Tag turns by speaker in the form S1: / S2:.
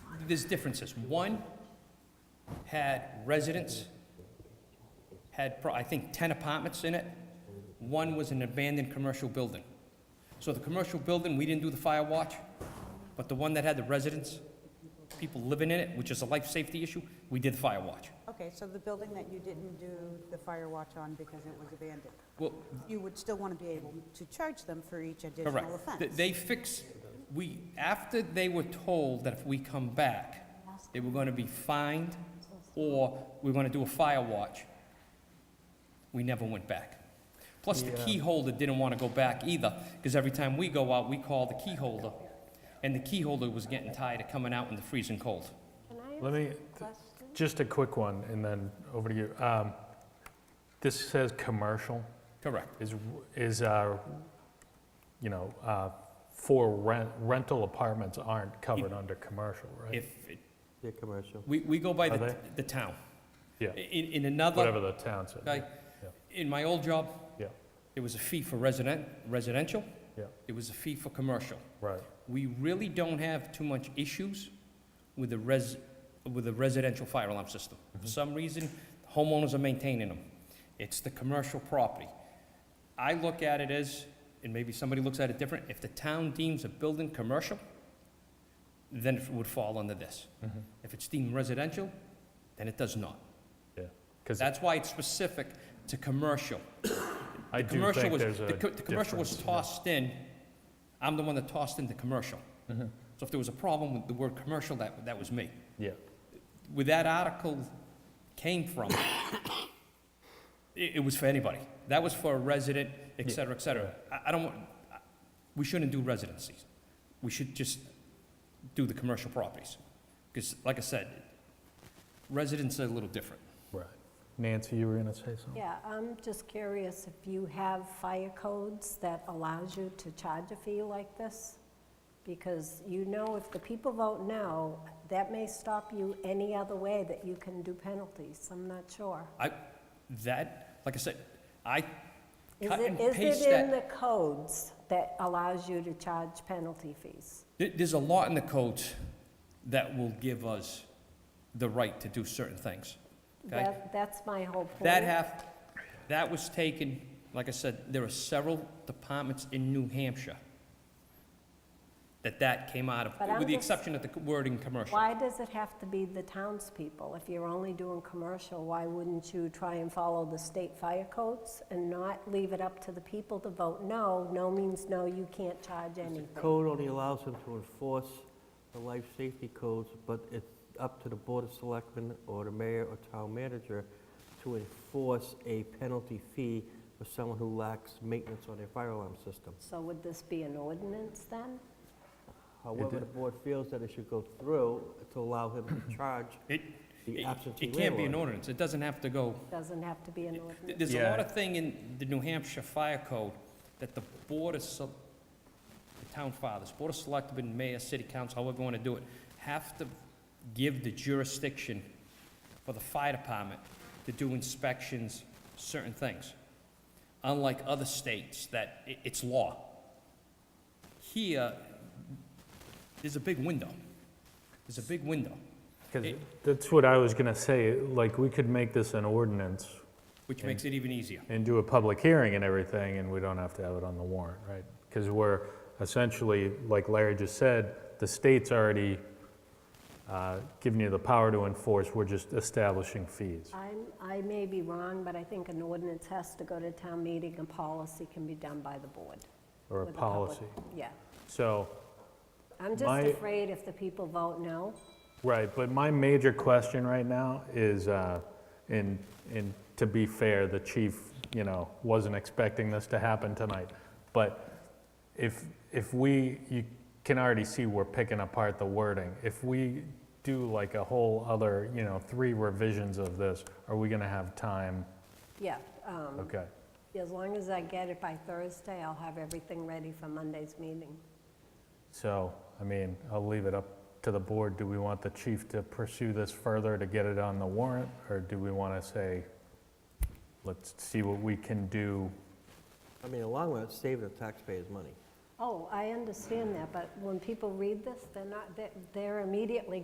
S1: there's differences. One had residents, had, pro- I think, 10 apartments in it. One was an abandoned commercial building. So the commercial building, we didn't do the fire watch, but the one that had the residents, people living in it, which is a life safety issue, we did the fire watch.
S2: Okay, so the building that you didn't do the fire watch on because it was abandoned,
S1: Well,
S2: you would still want to be able to charge them for each additional
S1: correct. Th-
S2: offense?
S1: They fixed, we, after they were told that if we come back, they were gonna be fined or we're gonna do a fire watch, we never went back. Plus, the key holder didn't wanna go back either, because every time we go out, we call the key holder, and the key holder was getting tired of coming out in the freezing cold.
S3: Can I ask
S4: Let me,
S3: a question?
S4: just a quick one, and then over to you. Um, This says "commercial."
S1: Correct.
S4: Is, is, uh, you know, uh, for rent, rental apartments aren't covered under commercial, right?
S1: If, it-
S5: Yeah, commercial.
S1: we, we go by
S4: Are
S1: the, the town.
S4: Yeah.
S1: In, in another.
S4: Whatever the town said.
S1: Like, in my old job.
S4: Yeah.
S1: There was a fee for resident, residential.
S4: Yeah.
S1: There was a fee for commercial.
S4: Right,
S1: We really don't have too much issues with the res, with the residential fire alarm system.
S4: Mm-hmm.
S1: For some reason, homeowners are maintaining them. It's the commercial property. I look at it as, and maybe somebody looks at it different, if the town deems a building commercial, then it would fall under this.
S4: Mhm.
S1: If it's deemed residential, then it does not.
S4: yeah. Because
S1: That's why it's specific to commercial.
S4: I
S1: The
S4: do
S1: commercial
S4: think
S1: was,
S4: there's a
S1: the co- the commercial was
S4: difference, yeah.
S1: tossed in, I'm the one that tossed in the commercial.
S4: Mhm.
S1: So if there was a problem with the word commercial, that, that was me.
S4: Yeah,
S1: Where that article came from, it, it was for anybody. That was for a resident, et
S4: Yeah.
S1: cetera, et cetera. I, I don't, want- I- we shouldn't do residencies. We should just do the commercial properties. Because, like I said, residents are a little different.
S4: right. Nancy, you were going to say something?
S3: Yeah, I'm just curious if you have fire codes that allows you to charge a fee like this? Because you know if the people vote no, that may stop you any other way that you can do penalties. I'm not sure.
S1: I, that, like I said, I
S3: Is
S1: Cut
S3: it,
S1: and
S3: is
S1: paste
S3: it in the
S1: that.
S3: codes that allows you to charge penalty fees?
S1: There- There's a law in the codes that will give us the right to do certain things. Okay.
S3: That, that's my whole point.
S1: That have, that was taken, like I said, there are several departments in New Hampshire that that came out
S3: But
S1: of,
S3: I'm
S1: with the
S3: just-
S1: exception of the wording commercial.
S3: Why does it have to be the townspeople? If you're only doing commercial, why wouldn't you try and follow the state fire codes and not leave it up to the people to vote no? No means no, you can't charge
S5: The
S3: anything.
S5: code only allows them to enforce the life safety codes, but it's up to the Board of Selectmen or the mayor or town manager to enforce a penalty fee for someone who lacks maintenance on their fire alarm system.
S3: So would this be an ordinance then?
S5: However, the board feels that it should go through to allow him to charge
S1: It,
S5: the
S1: it
S5: absentee
S1: it can't be an
S5: landlord.
S1: ordinance, it doesn't have to go.
S3: Doesn't have to be an ordinance.
S1: Th- There's a lot
S4: Yeah.
S1: of thing in the New Hampshire Fire Code that the Board of, Sel- the town fathers, Board of Selectmen, mayor, city council, however you want to do it, have to give the jurisdiction for the fire department to do inspections, certain things. Unlike other states that i- it's law. Here, there's a big window. There's a big window,
S4: 'Cause
S1: It-
S4: that's what I was going to say, like, we could make this an ordinance
S1: which makes it even easier.
S4: and do a public hearing and everything, and we don't have to have it on the warrant, right? Because we're essentially, like Larry just said, the state's already uh, giving you the power to enforce, we're just establishing fees.
S3: I'm, I may be wrong, but I think an ordinance has to go to town meeting and policy can be done by the board.
S4: Or a
S3: with the public-
S4: policy.
S3: Yeah.
S4: So,
S3: I'm just
S4: My-
S3: afraid if the people vote no,
S4: right, but my major question right now is, uh, and, and to be fair, the chief, you know, wasn't expecting this to happen tonight, but if, if we, you can already see we're picking apart the wording. If we do like a whole other, you know, three revisions of this, are we gonna have time?
S3: yeah. um,
S4: Okay,
S3: As long as I get it by Thursday, I'll have everything ready for Monday's meeting.
S4: so, I mean, I'll leave it up to the board. Do we want the chief to pursue this further to get it on the warrant? Or do we wanna say, let's see what we can do?
S5: I mean, in the long run, it's saving the taxpayers money.
S3: Oh, I understand that, but when people read this, they're not, they're- they're immediately